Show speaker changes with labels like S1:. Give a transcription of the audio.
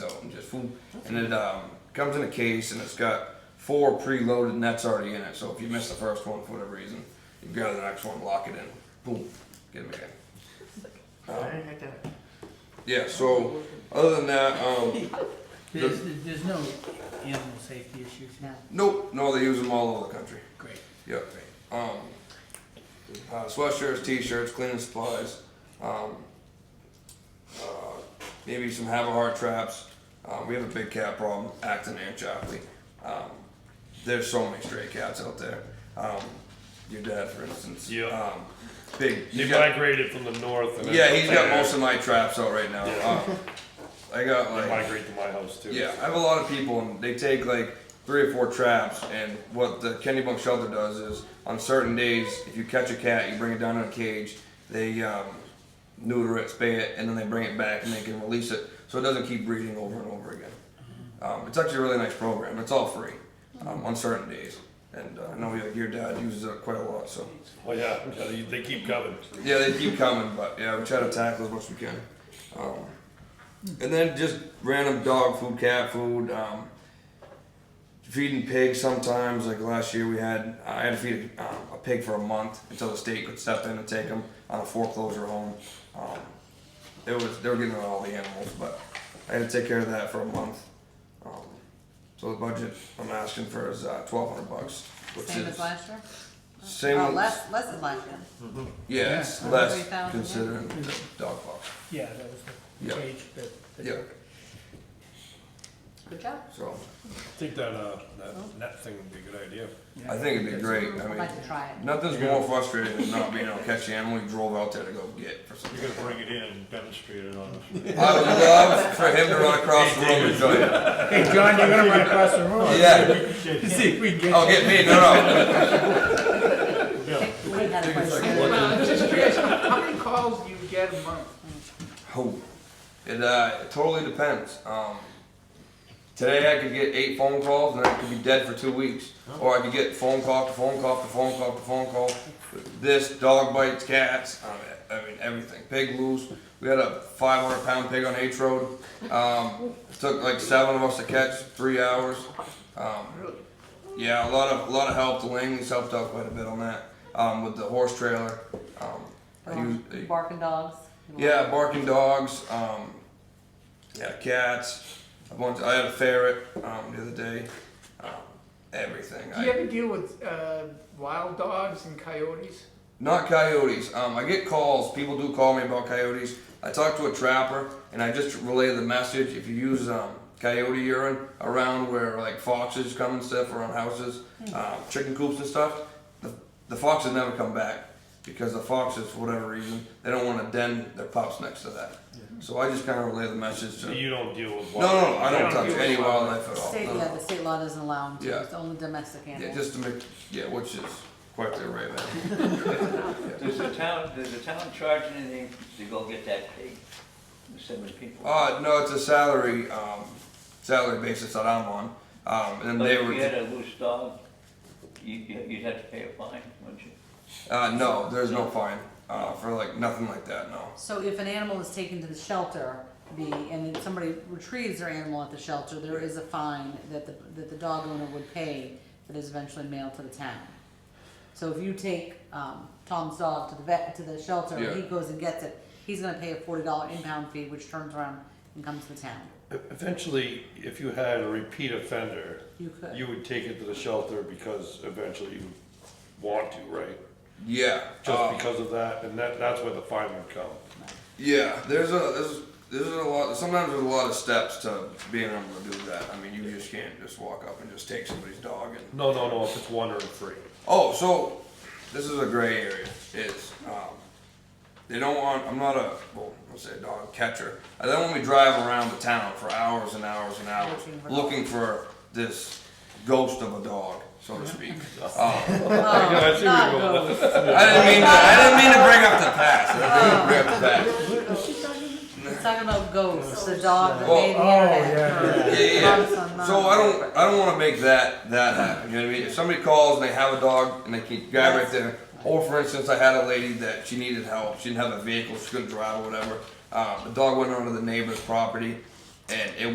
S1: foom, and it um, comes in a case and it's got four preloaded nets already in it. So if you miss the first one for whatever reason, you grab the next one, lock it in, boom, get them again.
S2: I didn't get that.
S1: Yeah. So other than that, um,
S3: There's, there's no animal safety issues now?
S1: nope, no, they use them all over the country.
S3: Great.
S1: Yep. Um, uh, sweatshirts, t-shirts, cleaning supplies, um, uh, maybe some have a heart traps. Um, we have a big cat problem, Acton and Chapley. Um, there's so many stray cats out there. Um, your dad, for instance.
S4: Yeah.
S1: Um, big.
S4: They
S1: he's got-
S4: migrated from the north. And then
S1: yeah, he's got
S4: they
S1: most of my traps out right now. Uh, I got like
S4: migrate to my house too.
S1: yeah, I have a lot of people, and they take like three or four traps. And what the Kennedy Bunk Shelter does is, on certain days, if you catch a cat, you bring it down in a cage. They um, neuter it, spay it, and then they bring it back, and they can release it, so it doesn't keep breeding over and over again. Um, it's actually a really nice program. It's all free um, on certain days, and uh, I know your- your dad uses it quite a lot. So
S4: Well, yeah, yeah, they, they keep coming.
S1: yeah, they keep coming, but yeah, we try to tackle as much as we can. Um, and then just random dog food, cat food, um, feeding pigs sometimes. Like last year, we had I had to feed um, a pig for a month until the state could step in and take them on a foreclosure home. Um, it was they were getting rid of all the animals, but I had to take care of that for a month. Um, so the budget I'm asking for is uh, twelve hundred bucks, which
S5: Same
S1: is
S5: as last year?
S1: same
S5: Oh,
S1: as-
S5: less, less than last year.
S1: yeah, it's
S3: Yeah.
S1: less
S5: 3,000, yeah.
S1: considering the dog box.
S3: Yeah, that was the
S1: Yeah.
S3: cage that. that-
S1: Yeah,
S5: Good job.
S1: so
S4: I think that, uh, that net thing would be a good idea.
S3: yeah.
S1: I think it'd be great. I
S5: I'd
S1: mean,
S5: like to try it.
S1: nothing's more frustrating than not being able to catch the animal you drove out there to go get for some.
S6: You're gonna bring it in and demonstrate it on us.
S1: I would love for him to run across the room and join it.
S3: Hey, John, you're gonna run across the room.
S1: Yeah.
S3: See if we can get.
S1: Oh, get me? No, no.
S5: We had a question.
S3: Well, I'm just curious, how many calls do you get a month?
S1: Oh, it uh, it totally depends. Um, today I could get eight phone calls and I could be dead for two weeks, or I could get phone call to phone call to phone call to phone call. This dog bites cats. Um, I mean everything. Pig loose. We had a 500 pound pig on H Road. Um, it took like seven of us to catch, three hours. Um,
S3: Really?
S1: yeah, a lot of a lot of help. The Langley's helped out quite a bit on that um, with the horse trailer. Um, I use-
S5: Barking dogs.
S1: yeah, barking dogs. Um, yeah, cats. A bunch. I had a ferret um, the other day. Um, everything.
S2: Do you
S1: I,
S2: ever deal with, uh, wild dogs and coyotes?
S1: not coyotes. Um, I get calls. People do call me about coyotes. I talk to a trapper and I just relay the message. If you use um, coyote urine around where like foxes come and stuff around houses, um, chicken coops and stuff, the, the foxes never come back because the foxes, for whatever reason, they don't want to den their pups next to that. So I just kind of relay the message. To,
S4: So you don't deal with.
S1: No, no, no, I don't
S4: wild-
S1: touch
S4: you
S1: any
S4: deal with
S1: wildlife at all.
S5: State,
S1: No,
S5: yeah,
S1: no.
S5: the state law doesn't allow them
S1: Yeah.
S5: to, it's only domestic
S1: Yeah,
S5: animals.
S1: just to make, yeah, which is quite the array, man.
S7: Does the town, does the town charge anything to go get that pig? So many people.
S1: Uh, no, it's a salary, um, salary basis that I'm on. Um, and then
S7: But
S1: they
S7: if you
S1: were,
S7: had a loose dog, you, you- you'd have to pay a fine, wouldn't you?
S1: uh, no, there's no fine, uh, for like, nothing like that, no.
S5: So if an animal is taken to the shelter, the, and then somebody retrieves their animal at the shelter, there is a fine that the, that the dog owner would pay that is eventually mailed to the town. So if you take, um, Tom's dog to the vet, to the shelter, and he
S1: Yeah.
S5: goes and gets it, he's gonna pay a forty dollar impound fee, which turns around and comes to the town.
S4: Eventually, if you had a repeat offender,
S5: You could.
S4: you would take it to the shelter because eventually you want to, right?
S1: Yeah,
S4: Just
S1: um,
S4: because of that, and that, that's where the fine would come.
S1: yeah, there's a, there's, there's a lot, sometimes there's a lot of steps to being able to do that. I mean, you just can't just walk up and just take somebody's dog and
S4: No, no, no, if it's one or three.
S1: Oh, so this is a gray area. Is um, they don't want. I'm not a well. Let's say a dog catcher. I don't want me driving around the town for hours and hours and hours
S5: Looking for-
S1: looking for this ghost of a dog, so to speak.
S5: Oh,
S1: Um,
S4: I see where you're
S5: not
S4: going with
S5: those.
S1: I didn't mean to. I didn't mean to bring up the past. I didn't mean to bring up the past.
S5: It's talking about ghosts, the dog that
S1: Well,
S5: made
S3: oh,
S5: the
S1: Yeah,
S5: internet.
S1: yeah.
S5: Months on
S1: So I
S5: months.
S1: don't, I don't wanna make that, that happen, you know what I mean? If somebody calls and they have a dog and they keep guy right there, or for instance, I had a lady that she needed help, she didn't have a vehicle, she couldn't drive or whatever. Uh, the dog went onto the neighbor's property and it